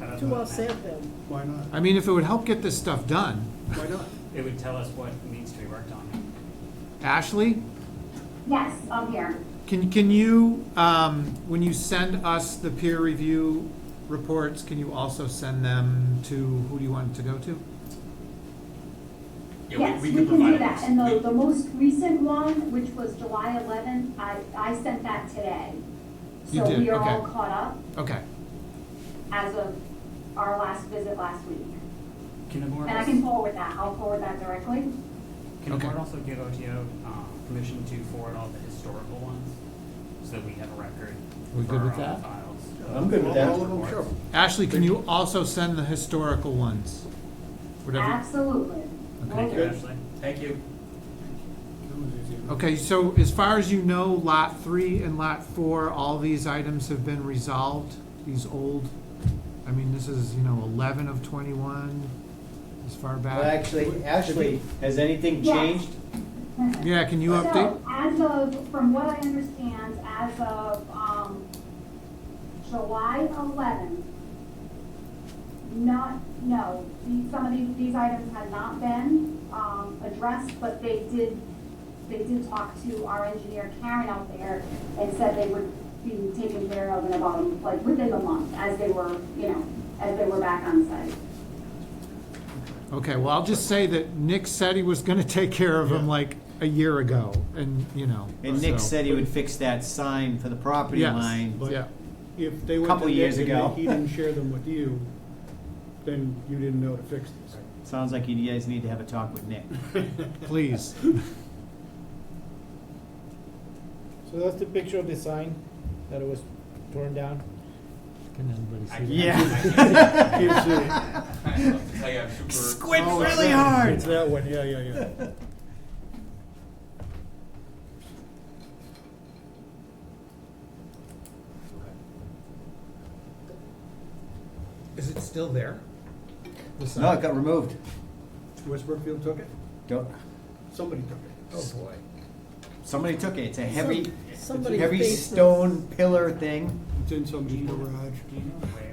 don't Too know. well said, then. Why not? I mean, if it would help get this stuff done, Why not? It would tell us what needs to be worked on. Ashley, Yes, I'm here. can, can you, um, when you send us the peer review reports, can you also send them to, who do you want it to go to? Yes, we can do that. And the, the most recent one, which was July 11th, I, I sent that today. You So did, we are all okay. caught up Okay, as of our last visit last week. Can the board, And I als- can can forward that, I'll forward that directly. the Okay. board also give OTO uh, permission to forward all the historical ones? So that we have a record We for good our with own that? files. I'm good with All- that. All of them, sure. Ashley, can you also send the historical ones? Uh-huh. Whatever, Absolutely. Thank you, Good. Ashley. Thank you. That was easy enough. okay, so as far as you know, lot three and lot four, all these items have been resolved, these old, I mean, this is, you know, eleven of twenty-one, as far Well, back. actually, Ashley, has anything Yes. changed? Yeah, can uh, you update? So, as of, from what I understand, as of, um, July eleventh, not, no, these, some of these, these items had not been, um, addressed, but they did, they did talk to our engineer Karen out there and said they would be taken care of in about, like, within a month, as they were, you know, as they were back on site. Okay, well, I'll just say that Nick said he was gonna take care of him like a year ago, and, you know. And Nick so- said he would fix that sign for the property Yes, line. But yeah. if they went Couple to Nick years and ago. Nick- he didn't share them with you, then you didn't know to fix these. Sounds like you guys need to have a talk with Nick. Please. So that's the picture of the sign that it was torn down. Can everybody see I that? can't- Yeah. I can't- Can't see it. Squint Oh, it's really that one. hard. It's that one, yeah, yeah, yeah. Is it still there? The sign? No, it got removed. Westbrookfield took it? Don't- Somebody took it. Oh, boy. Somebody took it. It's a heavy, Some- Somebody's heavy basement. stone pillar thing. It's in Do somebody's you know garage. do you know where?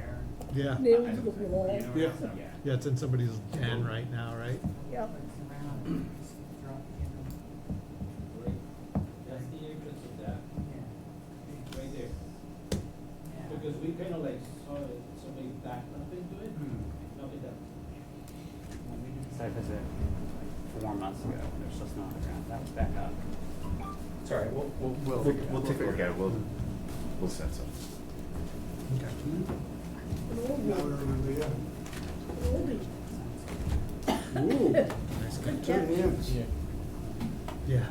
Yeah, They I would don't look think- like- you know where Yeah. it's at? Yeah. yeah, it's in somebody's den right now, right? Yep. That's the entrance of that, right there. Because we kind of like saw it, somebody backed up into it, nobody does. When we did the site visit like four months ago, when there's just not on the ground, that was back up. Sorry, we'll, we'll- we'll take a look at it. We'll, we'll send some. An old Now I one, remember, yeah. an oldie. Ooh, Good two catch. hands. Yeah.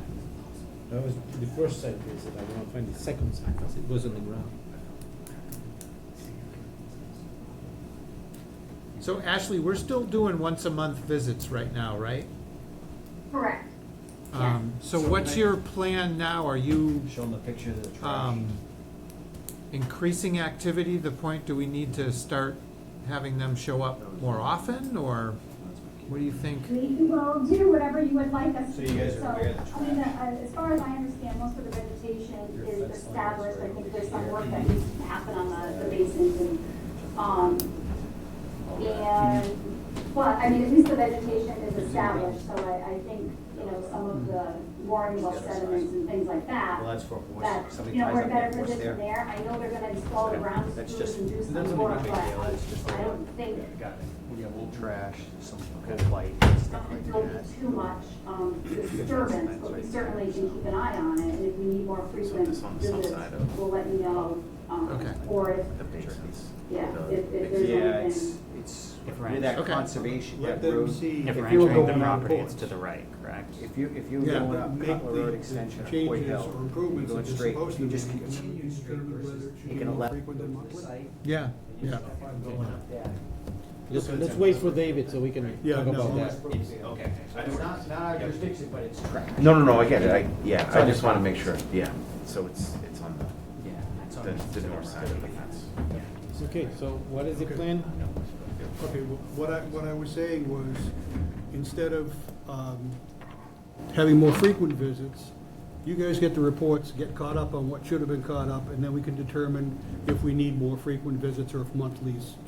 That was the first site visit. I want to find the second site visit. It was on the ground. So Ashley, we're still doing once a month visits right now, right? Correct. Um, so what's your plan now? Are you, Show them the picture of the trash. um, increasing activity, the point, do we need to start having them show up more often, or what do you think? We will do whatever you would like us So to you do. guys are aware of the So, I mean, uh, as far as I understand, most of the vegetation Your is fence line is established, I right think over there's some here. work that needs to happen on the, the basins and, um, and, well, I mean, at least the vegetation is established, so I, I think, you know, some of the mooring well sediments and things like that, Well, that's for a horse. that, Somebody you know, ties we're up that better horse positioned there. there, I know they're gonna install the Okay. ground That's screws just- and do that's not some work, a big but deal. I It's just a I don't think Got it. We got old trash, some old light, and stuff like don't that. be too much um, disturbance, but we certainly can keep an eye on it, and if we need more frequent this on the south visits, side of- we'll let you know. um, Okay. Or if, The big piece. yeah, The if, if big- there's Yeah, it's, anything. it's, If we're with that entering- conservation, Let that them road. see. If If we're you were entering the going on property, it's course. to the right, correct? If you, if you were Yeah. going up Make Cutler the- Road the extension of Hoyt changes Hill, or you're improvements going that they're straight, supposed you to just make, and then we continue can straight determine versus whether it should taking be a more left. frequent than monthly. Yeah, yeah. Let's, let's wait for David so we can Yeah, talk no, about that. almost- Okay. It's not, not our jurisdiction, but it's trash. No, no, no, I get it, I, yeah, It's I on just the wanna top. make sure, yeah, so it's, it's on the, Yeah. It's on- the, the north side of the fence. Okay, so what is the plan? Okay, well, what I, what I was saying was, instead of um, having more frequent visits, you guys get the reports, get caught up on what should have been caught up, and then we can determine if we need more frequent visits or if monthly's